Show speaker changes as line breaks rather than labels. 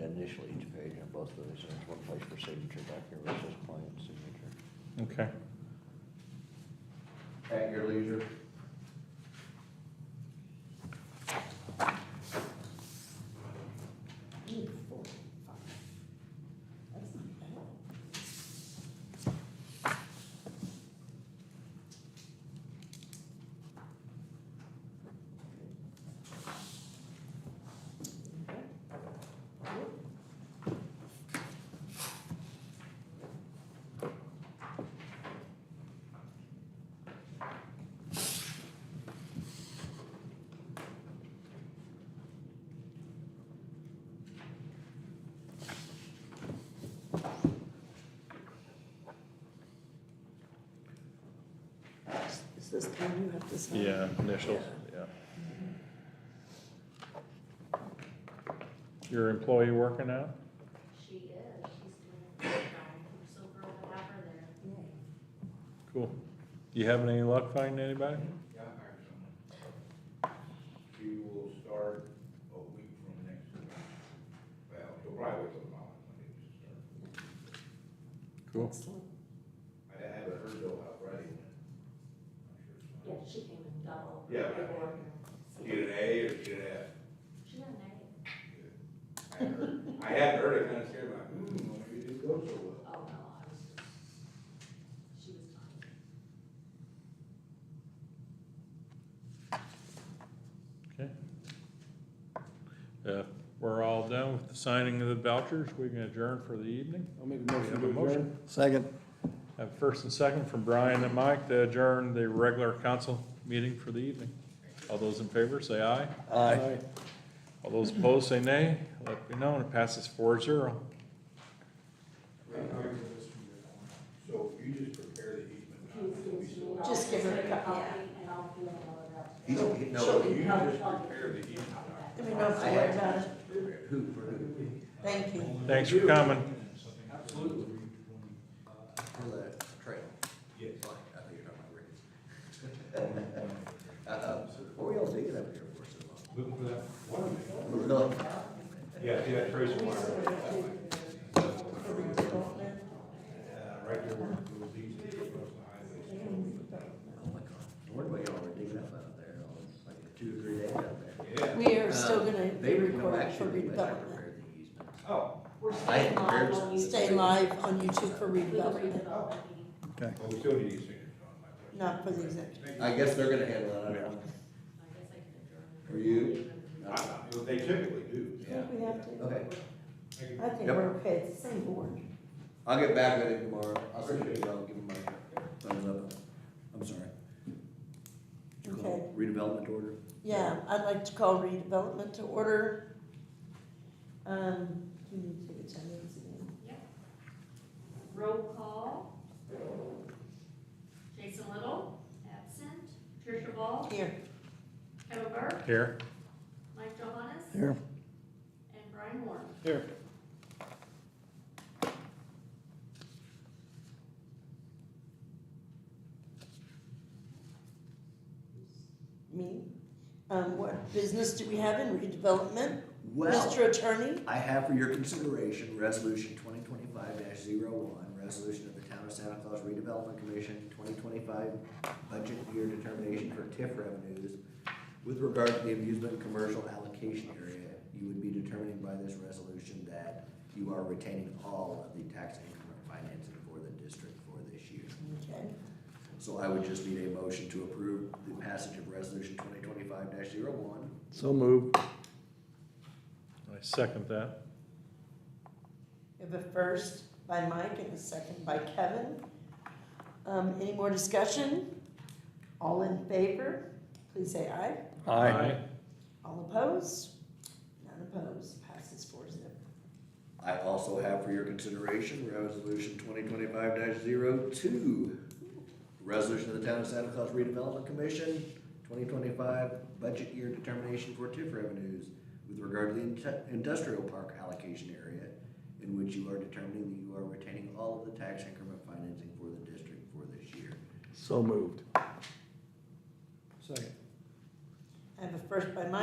initial each page on both of these, and there's one place for signature back here where it says client signature.
Okay.
At your leisure.
Ooh, four, five. That's not bad. Is this the one you have to sign?
Yeah, initials, yeah. Your employee working out?
She is, she's doing a great job. I'm so thrilled to have her there.
Yeah.
Cool. You having any luck finding anybody?
Yeah, I hired someone. She will start a week from next week. Well, she'll probably wait till tomorrow, Monday to start.
Cool.
Excellent.
I had her go out Friday. I'm
Yeah, she
sure it's fine.
came in double.
Yeah.
paperwork and-
She had an A or she had an F?
She got an A.
I had her- I had her to kind of scared like, hmm, well, maybe it didn't go so well.
Oh, no, I was just, she was
Okay. Uh,
fine.
We're all done with the signing of the vouchers. We can adjourn for the evening.
I'll make
We have a motion.
Second.
Have first and second from Brian and Mike to adjourn the regular council meeting for the evening. All those in favor, say aye.
Aye.
All those opposed, say nay. Let me know, and it passes four zero.
So you just prepare the easement. now,
Please give
so we
me
still-
all
Just give her a
the
copy.
copy And I'll fill it all out.
You don't get- No, you just
I'll-
prepare the easement. now.
Let me know if you worked on it.
Who, for who?
Thank you.
Thanks for coming.
Absolutely. For the trail? Yes. I think you're talking about Rick's. Uh, What were y'all digging up here for so long? Oh, Looking for that Yeah, see that trace of water? Right there where it goes east across the highway. Oh, my God. I wonder what y'all were digging up out there, all this, like two or three days out there. Yeah.
We are still gonna
Uh, They
be
were, no,
recorded for
actually, unless I
redevelopment.
prepared the easement.
We're
I
staying
had
live
prepared
on
some.
YouTube.
Stay live on YouTube for
For the
redevelopment,
redevelopment meeting.
Well, we still need these signatures
not for the executive.
on my. I guess they're gonna handle it, I don't
I
know.
guess I can adjourn.
For you?
They typically do.
I think we have to.
Okay,
I think
Yep.
we're okay, it's the same board.
I'll get back with him tomorrow, I'll send you, I'll give him my thumbs up, I'm sorry. Did you call it Redevelopment order?
Yeah, I'd like to call redevelopment to order. Um, do you need to take attendance again?
Roll call. Jason Little, absent. Tricia Ball,
Here,
Kevin Burke,
Here.
Mike Johannes,
Here.
and Brian Warren.
Here.
me. Um, what business do we have in redevelopment?
Well,
Mr. Attorney?
I have for your consideration, resolution twenty twenty-five one resolution of the Town of Santa Claus Redevelopment Commission, twenty twenty-five budget year determination for TIF revenues with regard to the amusement commercial allocation area. You would be determining by this resolution that you are retaining all of the tax increment financing for the district for this year.
Okay,
So I would just need a motion to approve the passage of resolution twenty twenty-five one
So moved.
I second that.
we have a first by Mike and a second by Kevin. Um, any more discussion? All in favor, please say aye. All opposed? None opposed, passes four zip.
I also have for your consideration, resolution twenty twenty-five 2 Resolution of the Town of Santa Claus Redevelopment Commission, twenty twenty-five budget year determination for TIF revenues with regard to the inte- industrial park allocation area in which you are determining that you are retaining all of the tax increment financing for the district for this year.
So moved. Second.
I have a first by Mike